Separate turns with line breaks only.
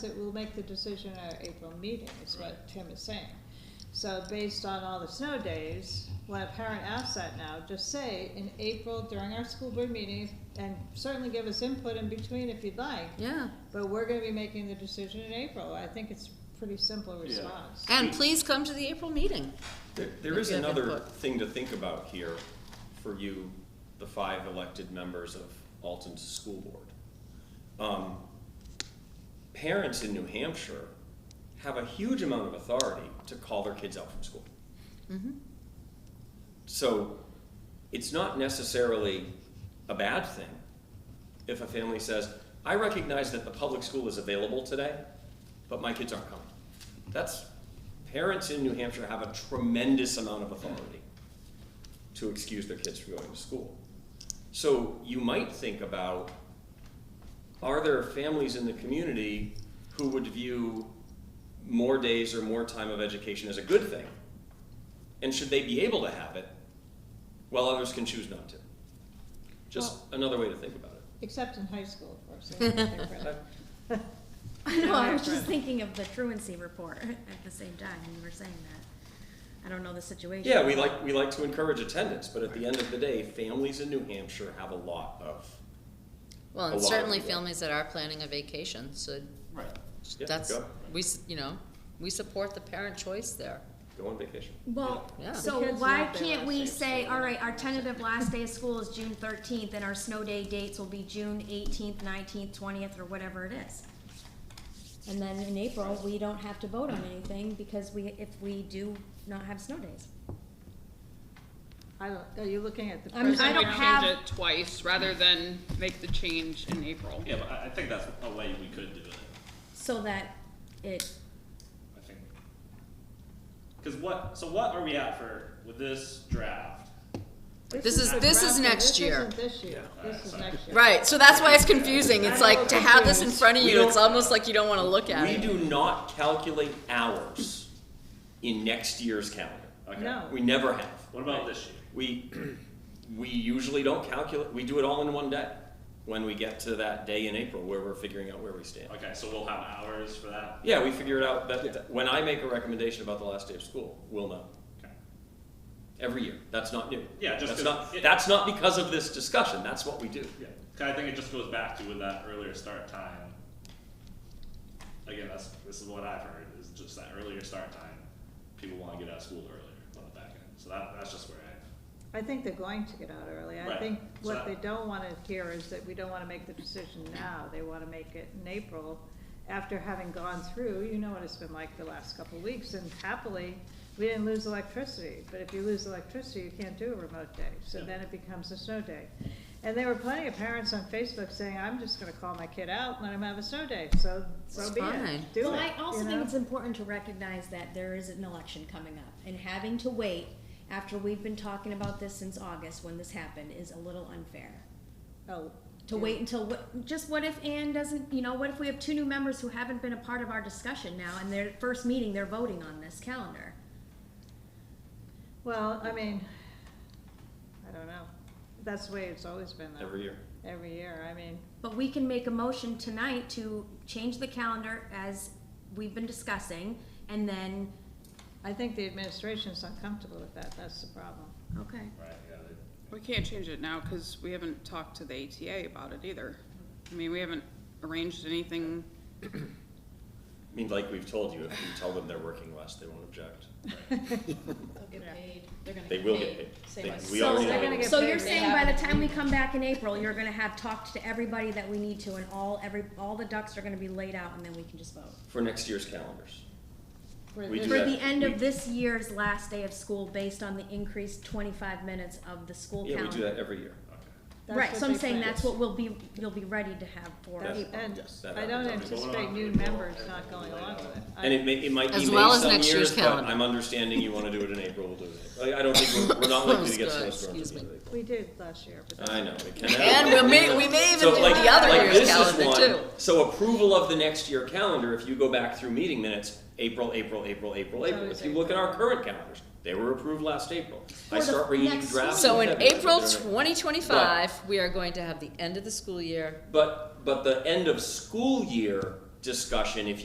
That we'll make the decision at our April meeting, is what Tim is saying. So based on all the snow days, when a parent asks that now, just say in April during our school board meeting, and certainly give us input in between if you'd like,
Yeah,
but we're gonna be making the decision in April. I think it's pretty simple response.
and please come to the April meeting.
There, there
If
is
you have
another
input.
thing to think about here for you, the five elected members of Alton's school board. Um, Parents in New Hampshire have a huge amount of authority to call their kids out from school.
Mm-hmm.
So it's not necessarily a bad thing if a family says, I recognize that the public school is available today, but my kids aren't coming. That's, parents in New Hampshire have a tremendous amount of authority to excuse their kids from going to school. So you might think about, are there families in the community who would view more days or more time of education as a good thing? And should they be able to have it while others can choose not to? Just another way to think about it.
Except in high school, of course. that's different.
I know, I was
Yeah,
just
right.
thinking of the truancy report at the same time, when you were saying that. I don't know the situation.
Yeah, we like, we like to encourage attendance, but at the end of the day, families in New Hampshire have a lot of.
Well,
A
and
lot of
certainly
people.
families that are planning a vacation, so
Right.
Yeah,
that's,
go.
we, s- you know, we support the parent choice there.
Go on vacation.
Well,
Yeah.
so
The kids
why
love their last
can't
day
we
of
say,
school.
all right, our tentative last day of school is June thirteenth, and our snow day dates will be June eighteenth, nineteenth, twentieth, or whatever it is? And then in April, we don't have to vote on anything, because we, if we do not have snow days.
I don't, are you looking at the
I'm- I
present?
Person
don't
would
have-
Change it twice rather than make the change in April.
Yeah, but I, I think that's a way we could do it,
So that it,
I think. Cause what, so what are we at for, with this draft?
This is- this is
Roger,
next year.
This isn't this year,
Yeah.
this is next year.
Right, so that's why it's confusing, it's like, to have this in front of
We
you, it's
don't-
almost like you don't wanna look at
We
it.
do not calculate hours in next year's calendar.
Okay.
No.
We never have.
What about this year?
We, we usually don't calculate, we do it all in one day when we get to that day in April where we're figuring out where we stand.
Okay, so we'll have hours for that?
Yeah, we figure it out, that, that- when I make a recommendation about the last day of school, we'll know.
Okay.
Every year, that's not new.
Yeah, just
That's
'cause
not,
it-
that's not because of this discussion, that's what we do.
Yeah, 'Cause I think it just goes back to with that earlier start time. Again, that's, this is what I've heard, is just that earlier start time, people wanna get out of school earlier on the back end, so that, that's just where I,
I think they're going to get out early. I
Right.
think what
So-
they don't wanna hear is that we don't wanna make the decision now. They wanna make it in April, after having gone through, you know what it's been like the last couple of weeks, and happily, we didn't lose electricity, but if you lose electricity, you can't do a remote day, so
Yeah.
then it becomes a snow day. And there were plenty of parents on Facebook saying, I'm just gonna call my kid out, and let him have a snow day, so, so
It's
be
fine.
it, do it,
Well, I also
you
think
know?
it's important to recognize that there is an election coming up, and having to wait after we've been talking about this since August when this happened is a little unfair.
Oh,
To
yeah.
wait until what, just what if Ann doesn't, you know, what if we have two new members who haven't been a part of our discussion now, and their first meeting, they're voting on this calendar?
Well, I mean, I don't know. That's the way it's always been though.
Every year.
Every year, I mean,
But we can make a motion tonight to change the calendar as we've been discussing, and then,
I think the administration's uncomfortable with that, that's the problem.
okay.
right, yeah, they-
We can't change it now because we haven't talked to the ATA about it either. I mean, we haven't arranged anything.
I mean, like we've told you, if you tell them they're working less, they won't object.
Yeah.
They're gonna
They will get paid.
Same
They-
as-
We
So-
already
They're
know.
gonna
it.
get
So
paid.
you're
They
saying by the
haven't-
time we come back in April, you're gonna have talked to everybody that we need to, and all, every, all the ducks are gonna be laid out, and then we can just vote?
For next year's calendars.
For
We
this-
do
For
that.
the end
We-
of this year's last day of school, based on the increased twenty-five minutes of the school
Yeah,
calendar?
we do that every year.
okay.
that's
Right,
what
so I'm
they
saying
plan.
that's what we'll be, you'll be ready to have for
That's-
April.
And
Yes, that
I don't
happens.
anticipate new members not going along with it. I-
And it may, it might be
As
May
well as
some
next year's
years, but
calendar.
I'm understanding you wanna do it in April, we'll do it in April. Like, I don't think, we're- we're not likely to get
Excuse
snowstorms at the
me.
end of April.
We did last year, but that's.
I know, it can
And
happen.
we may, we may even
So
do
like,
the other
like
year's
this is
calendar
one,
too.
so approval of the next year calendar, if you go back through meeting minutes, April, April, April, April, April.
always
If you look at our
April.
current calendars, they were approved last April. I
For the
start bringing you
next-
drafts.
So in
February.
April
They're-
twenty twenty-five, we are going to have the end of the school year.
But but the end of school year discussion, if